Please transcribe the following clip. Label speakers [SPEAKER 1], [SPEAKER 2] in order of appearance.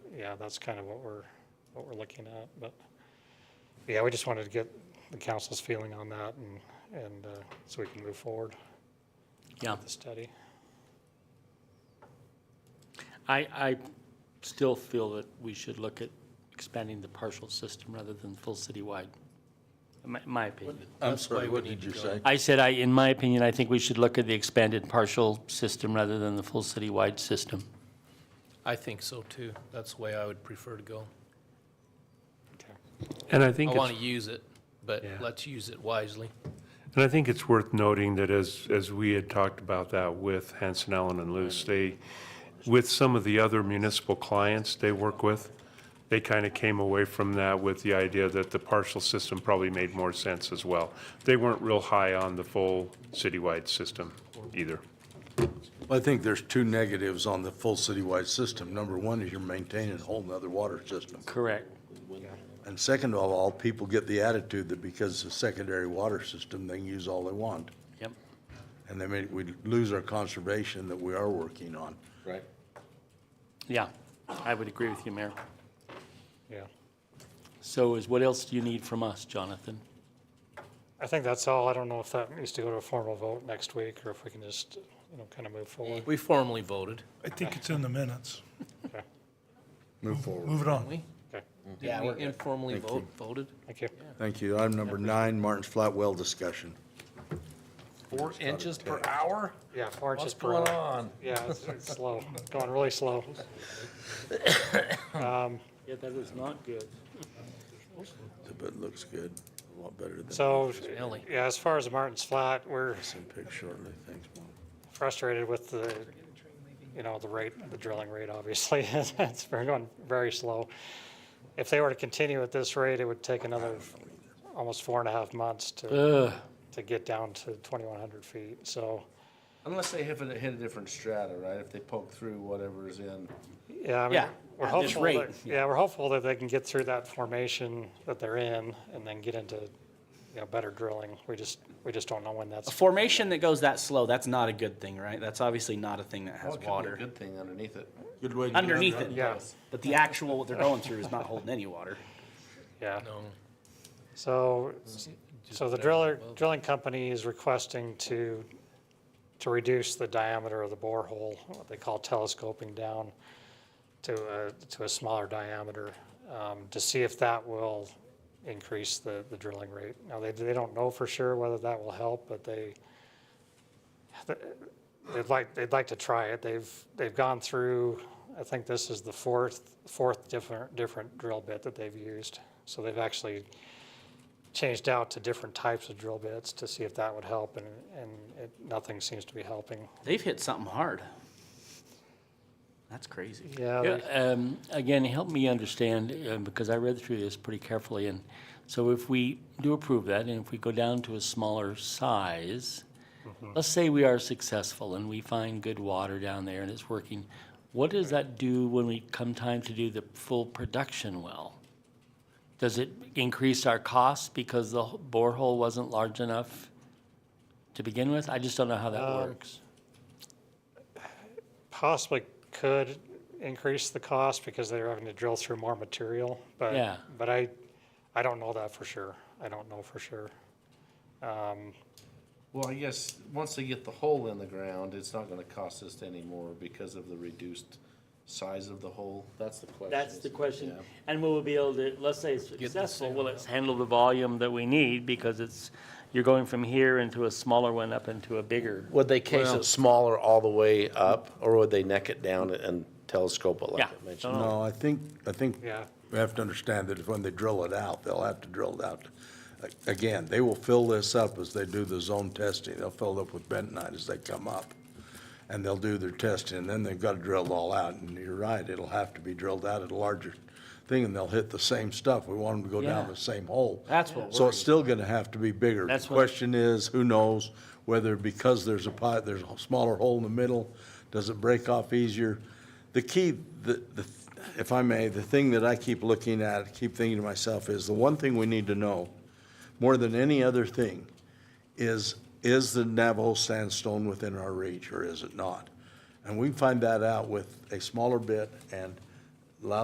[SPEAKER 1] yeah, that's kind of what we're, what we're looking at, but, yeah, we just wanted to get the council's feeling on that and, and, uh, so we can move forward
[SPEAKER 2] Yeah,
[SPEAKER 1] with the study.
[SPEAKER 2] I, I still feel that we should look at expanding the partial system rather than full citywide, my, my opinion.
[SPEAKER 3] I'm
[SPEAKER 4] That's
[SPEAKER 3] sorry,
[SPEAKER 4] why
[SPEAKER 3] what
[SPEAKER 4] we
[SPEAKER 3] did
[SPEAKER 4] need
[SPEAKER 3] you
[SPEAKER 4] to
[SPEAKER 3] say?
[SPEAKER 2] I said, I, in my opinion, I think we should look at the expanded partial system rather than the full citywide system.
[SPEAKER 4] I think so too. That's the way I would prefer to go.
[SPEAKER 1] Okay.
[SPEAKER 5] And I
[SPEAKER 4] I
[SPEAKER 5] think,
[SPEAKER 4] want
[SPEAKER 5] it's-
[SPEAKER 4] to use it, but
[SPEAKER 5] Yeah.
[SPEAKER 4] let's use it wisely.
[SPEAKER 5] and I think it's worth noting that as, as we had talked about that with Hanson Allen and Luce, they, with some of the other municipal clients they work with, they kind of came away from that with the idea that the partial system probably made more sense as well. They weren't real high on the full citywide system either.
[SPEAKER 3] I think there's two negatives on the full citywide system. Number one is you're maintaining a whole nother water system.
[SPEAKER 2] Correct.
[SPEAKER 3] And second of all, people get the attitude that because the secondary water system, they can use all they want.
[SPEAKER 2] Yep.
[SPEAKER 3] And they may, we lose our conservation that we are working on.
[SPEAKER 4] Right.
[SPEAKER 2] Yeah, I would agree with you, Mayor.
[SPEAKER 1] Yeah,
[SPEAKER 2] So is, what else do you need from us, Jonathan?
[SPEAKER 1] I think that's all. I don't know if that needs to go to a formal vote next week or if we can just, you know, kind of move forward.
[SPEAKER 4] We formally voted.
[SPEAKER 6] Mm-hmm.
[SPEAKER 7] I think it's in the minutes.
[SPEAKER 3] Move forward.
[SPEAKER 7] Move it on.
[SPEAKER 4] We
[SPEAKER 1] Okay,
[SPEAKER 4] Did we informally vote, voted?
[SPEAKER 1] thank you.
[SPEAKER 3] Thank you. Item number nine, Martin's Flat Well discussion.
[SPEAKER 4] Four inches per hour?
[SPEAKER 1] Yeah, four inches
[SPEAKER 4] What's
[SPEAKER 1] per
[SPEAKER 4] going
[SPEAKER 1] hour.
[SPEAKER 4] on?
[SPEAKER 1] Yeah, it's it's slow, It's going really slow.
[SPEAKER 2] Yeah, that is not good.
[SPEAKER 3] But it looks good, a lot better than.
[SPEAKER 1] So,
[SPEAKER 4] Smelly.
[SPEAKER 1] yeah, as far as Martin's Flat, we're
[SPEAKER 3] Send pic shortly, thanks, Mark.
[SPEAKER 1] frustrated with the, you know, the rate, the drilling rate, obviously. It's been going very slow. If they were to continue at this rate, it would take another almost four and a half months to,
[SPEAKER 2] Ugh,
[SPEAKER 1] to get down to 2,100 feet. So,
[SPEAKER 6] Unless they hit a, hit a different strata, right? If they poke through whatever is in.
[SPEAKER 1] Yeah, I mean,
[SPEAKER 2] Yeah,
[SPEAKER 1] we're
[SPEAKER 2] at this
[SPEAKER 1] hopeful,
[SPEAKER 2] rate,
[SPEAKER 1] that- yeah, we're hopeful that they can get through that formation that they're in and then get into, you know, better drilling. We just, we just don't know when
[SPEAKER 8] A
[SPEAKER 1] that's,
[SPEAKER 8] formation that goes that slow, that's not a good thing, right? That's obviously not a thing that
[SPEAKER 6] Oh,
[SPEAKER 8] has
[SPEAKER 6] it could be a
[SPEAKER 8] water.
[SPEAKER 6] Good thing underneath it.
[SPEAKER 3] Good way to.
[SPEAKER 8] Underneath it,
[SPEAKER 1] yeah,
[SPEAKER 8] but the actual, what they're going through is not holding any water.
[SPEAKER 1] yeah.
[SPEAKER 4] No.
[SPEAKER 1] So, so the
[SPEAKER 4] better
[SPEAKER 1] driller,
[SPEAKER 4] than well.
[SPEAKER 1] drilling company is requesting to, to reduce the diameter of the borehole, what they call telescoping down to a, to a smaller diameter, um, to see if that will increase the, the drilling rate. Now, they, they don't know for sure whether that will help, but they, they'd like, they'd like to try it. They've, they've gone through, I think this is the fourth, fourth different, different drill bit that they've used. So they've actually changed out to different types of drill bits to see if that would help, and, and it, nothing seems to be helping.
[SPEAKER 8] They've hit something hard. That's crazy.
[SPEAKER 1] Yeah,
[SPEAKER 2] Yeah,
[SPEAKER 1] they-
[SPEAKER 2] um, Again, help me understand, uh, because I read through this pretty carefully, and so if we do approve that, and if we go down to a smaller size,
[SPEAKER 8] Mm-hmm.
[SPEAKER 2] let's say we are successful and we find good water down there and it's working, what does that do when we come time to do the full production well? Does it increase our costs because the h- borehole wasn't large enough to begin with? I just don't know how that
[SPEAKER 8] Uh,
[SPEAKER 2] works.
[SPEAKER 1] possibly could increase the cost because they're having to drill through more material, but,
[SPEAKER 2] Yeah.
[SPEAKER 1] but I, I don't know that for sure. I don't know for sure. Um,
[SPEAKER 6] Well, I guess, once they get the hole in the ground, it's not gonna cost us anymore because of the reduced size of the hole. That's the question.
[SPEAKER 2] That's the
[SPEAKER 6] isn't it?
[SPEAKER 2] question.
[SPEAKER 6] Yeah.
[SPEAKER 2] And will we be able to, let's say it's successful, will it handle the volume that we need? Because it's, you're going from here into a smaller one up into a bigger.
[SPEAKER 9] Would they case it smaller all the way up, or would they neck it down and telescope it like
[SPEAKER 2] Yeah.
[SPEAKER 9] I mentioned?
[SPEAKER 2] don't know.
[SPEAKER 3] No, I think, I think
[SPEAKER 1] Yeah.
[SPEAKER 3] we have to understand that when they drill it out, they'll have to drill it out. A- Again, they will fill this up as they do the zone testing. They'll fill it up with bentonite as they come up. And they'll do their testing, and then they've got to drill it all out. And you're right, it'll have to be drilled out at a larger thing, and they'll hit the same stuff. We want them to go down
[SPEAKER 2] Yeah.
[SPEAKER 3] the same hole.
[SPEAKER 8] That's what
[SPEAKER 3] So it's still going to have to be bigger. The
[SPEAKER 2] That's what-
[SPEAKER 3] Question is, who knows, whether because there's a pot, there's a smaller hole in the middle, does it break off easier? The key, the, the, if I may, the thing that I keep looking at, keep thinking to myself, is the one thing we need to know, more than any other thing, is, is the Navajo sandstone within our reach, or is it not? And we can find that out with a smaller bit and